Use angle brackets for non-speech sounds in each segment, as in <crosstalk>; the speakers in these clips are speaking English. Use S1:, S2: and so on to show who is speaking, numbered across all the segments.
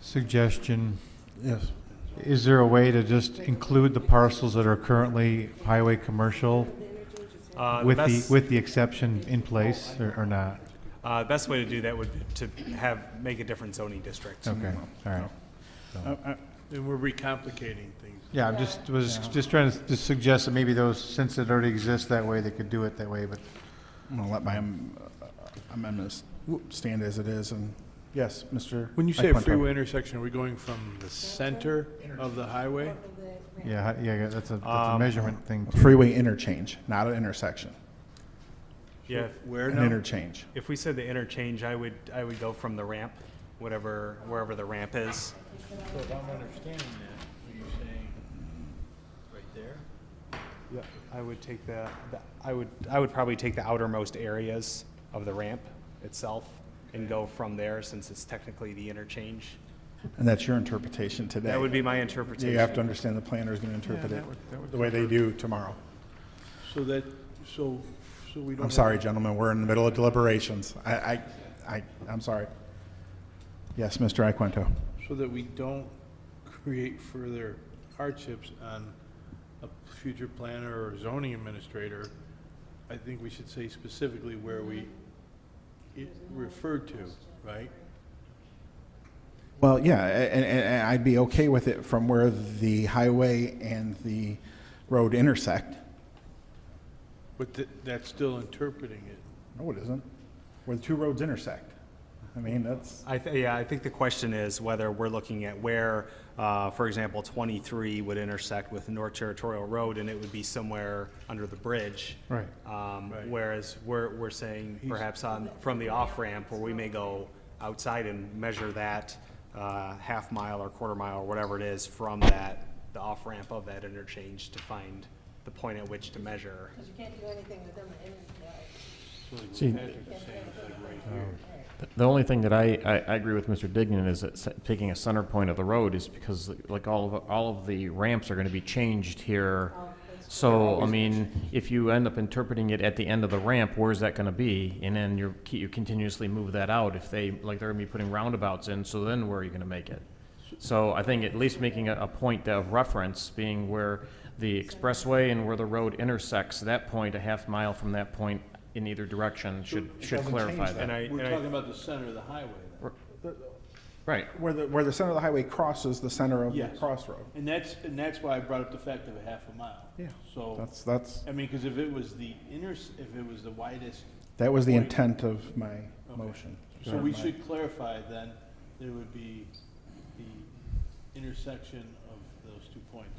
S1: suggestion.
S2: Yes.
S1: Is there a way to just include the parcels that are currently highway commercial
S3: Uh,
S1: with the,
S3: best-
S1: with the exception in place or, or not?
S3: Uh, best way to do that would be to have, make a different zoning district.
S1: Okay, all right.
S4: And we're recomplicating things.
S1: Yeah, I'm just, was just trying to s- suggest that maybe those, since it already exists that way, they could do it that way, but
S2: I'm going to let my um, uh, amendment stand as it is, and yes, Mr.
S4: When you say
S2: Mike Montoya.
S4: freeway intersection, are we going from the center of the highway?
S1: yeah, hi- yeah, that's a, that's a
S3: Um,
S1: measurement thing too.
S2: Freeway interchange, not an intersection,
S3: Yeah, if-
S4: Where
S2: an
S4: now?
S2: interchange.
S3: if we said the interchange, I would, I would go from the ramp, whatever, wherever the ramp is.
S5: So if I'm understanding that, are you saying right there?
S3: Yeah, I would take the, the- I would, I would probably take the outermost areas of the ramp itself and go from there, since it's technically the interchange.
S2: And that's your interpretation today.
S3: That would be my
S2: Yeah,
S3: interpretation.
S2: You have to understand the planner is going to interpret it the way they do tomorrow.
S5: So that, so, so we don't.
S2: I'm sorry, gentlemen, we're in the middle of deliberations. I, I, I, I'm sorry. Yes, Mr. Iaquinto.
S5: So that we don't create further hardships on a future planner or zoning administrator, I think we should say specifically where we it referred to, right?
S2: Well, yeah, a- and, and, and I'd be okay with it from where the highway and the road intersect.
S5: But th- that's still interpreting it.
S2: No, it isn't. Where the two roads intersect. I mean, that's,
S3: I, th- yeah, I think the question is whether we're looking at where, uh, for example, 23 would intersect with North Territorial Road, and it would be somewhere under the bridge.
S1: Right.
S3: Um,
S5: Right.
S3: Whereas we're, we're saying perhaps on, from the off-ramp, where we may go outside and measure that uh, half mile or quarter mile, or whatever it is, from that, the off-ramp of that interchange to find the point at which to measure.
S6: Because you can't do anything within the interchange.
S7: See, th- the only thing that I, I, I agree with Mr. Dignan is that s- taking a center point of the road is because like all of, all of the ramps are gonna be changed here. So, I mean, if you end up interpreting it at the end of the ramp, where's that gonna be? And then you're, ke- you continuously move that out. If they, like, they're gonna be putting roundabouts in, so then where are you gonna make it? So I think at least making a, a point of reference being where the expressway and where the road intersects, that point, a half mile from that point in either direction should, should
S2: doesn't change
S7: clarify
S2: that.
S7: that.
S3: And I, and
S5: We're
S3: I-
S5: talking about the center of the highway then.
S7: Right.
S2: where the, where the center of the highway crosses the center of the
S5: Yes.
S2: crossroad.
S5: And that's, and that's why I brought up the fact of a half a mile.
S2: Yeah,
S5: So,
S2: That's, that's,
S5: I mean, because if it was the inner, if it was the widest,
S2: that was the intent of my motion.
S5: so we should clarify then, there would be the intersection of those two points.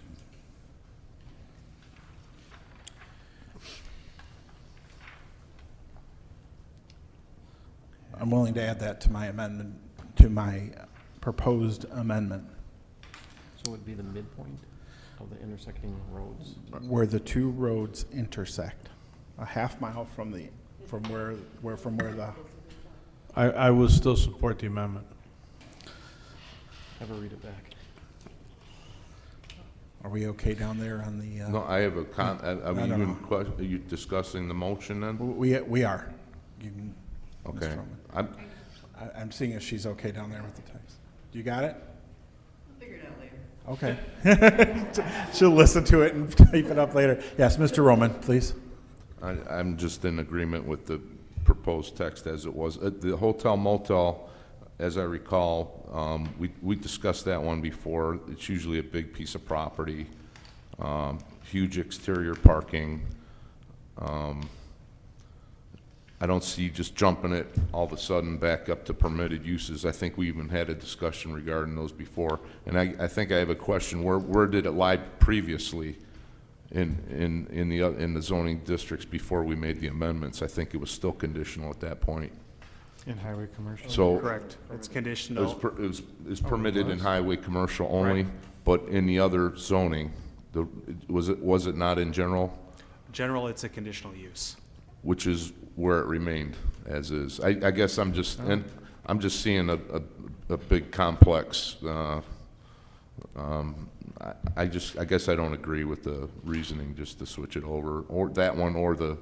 S2: I'm willing to add that to my amendment, to my proposed amendment,
S7: So it would be the midpoint of the intersecting roads?
S2: where the two roads intersect, a half mile from the, from where, where, from where the,
S5: I, I will still support the amendment.
S7: Have a read it back.
S2: are we okay down there on the,
S8: No,
S2: uh,
S8: I have a con, are are we
S2: No, no,
S8: even,
S2: no.
S8: ques- are you discussing the motion then?
S2: we, we are. You can- Ms.
S8: Okay.
S2: Frohman.
S8: I'm,
S2: I, I'm seeing if she's okay down there with the text. You got it? Figure it out later. Okay. <laughs> She'll listen to it and type it up later. Yes, Mr. Roman, please.
S8: I, I'm just in agreement with the proposed text as it was. Uh, The hotel motel, as I recall, um, we, we discussed that one before. It's usually a big piece of property, um, huge exterior parking. Um, I don't see just jumping it all of a sudden back up to permitted uses. I think we even had a discussion regarding those before. And I, I think I have a question. Where, where did it lie previously? in, in, in the, oth- in the zoning districts before we made the amendments. I think it was still conditional at that point.
S1: In highway commercial.
S8: So.
S3: correct, it's
S8: It was,
S3: conditional.
S8: per- it was, Oh, it was permitted in highway commercial only, but in the other zoning, the, was it, was it not in general?
S3: General, it's a conditional use.
S8: Which is where it remained as is. I, I guess I'm just, and I'm just seeing a, a, a big complex, uh, um, I, I just, I guess I don't agree with the reasoning just to switch it over, or that one or the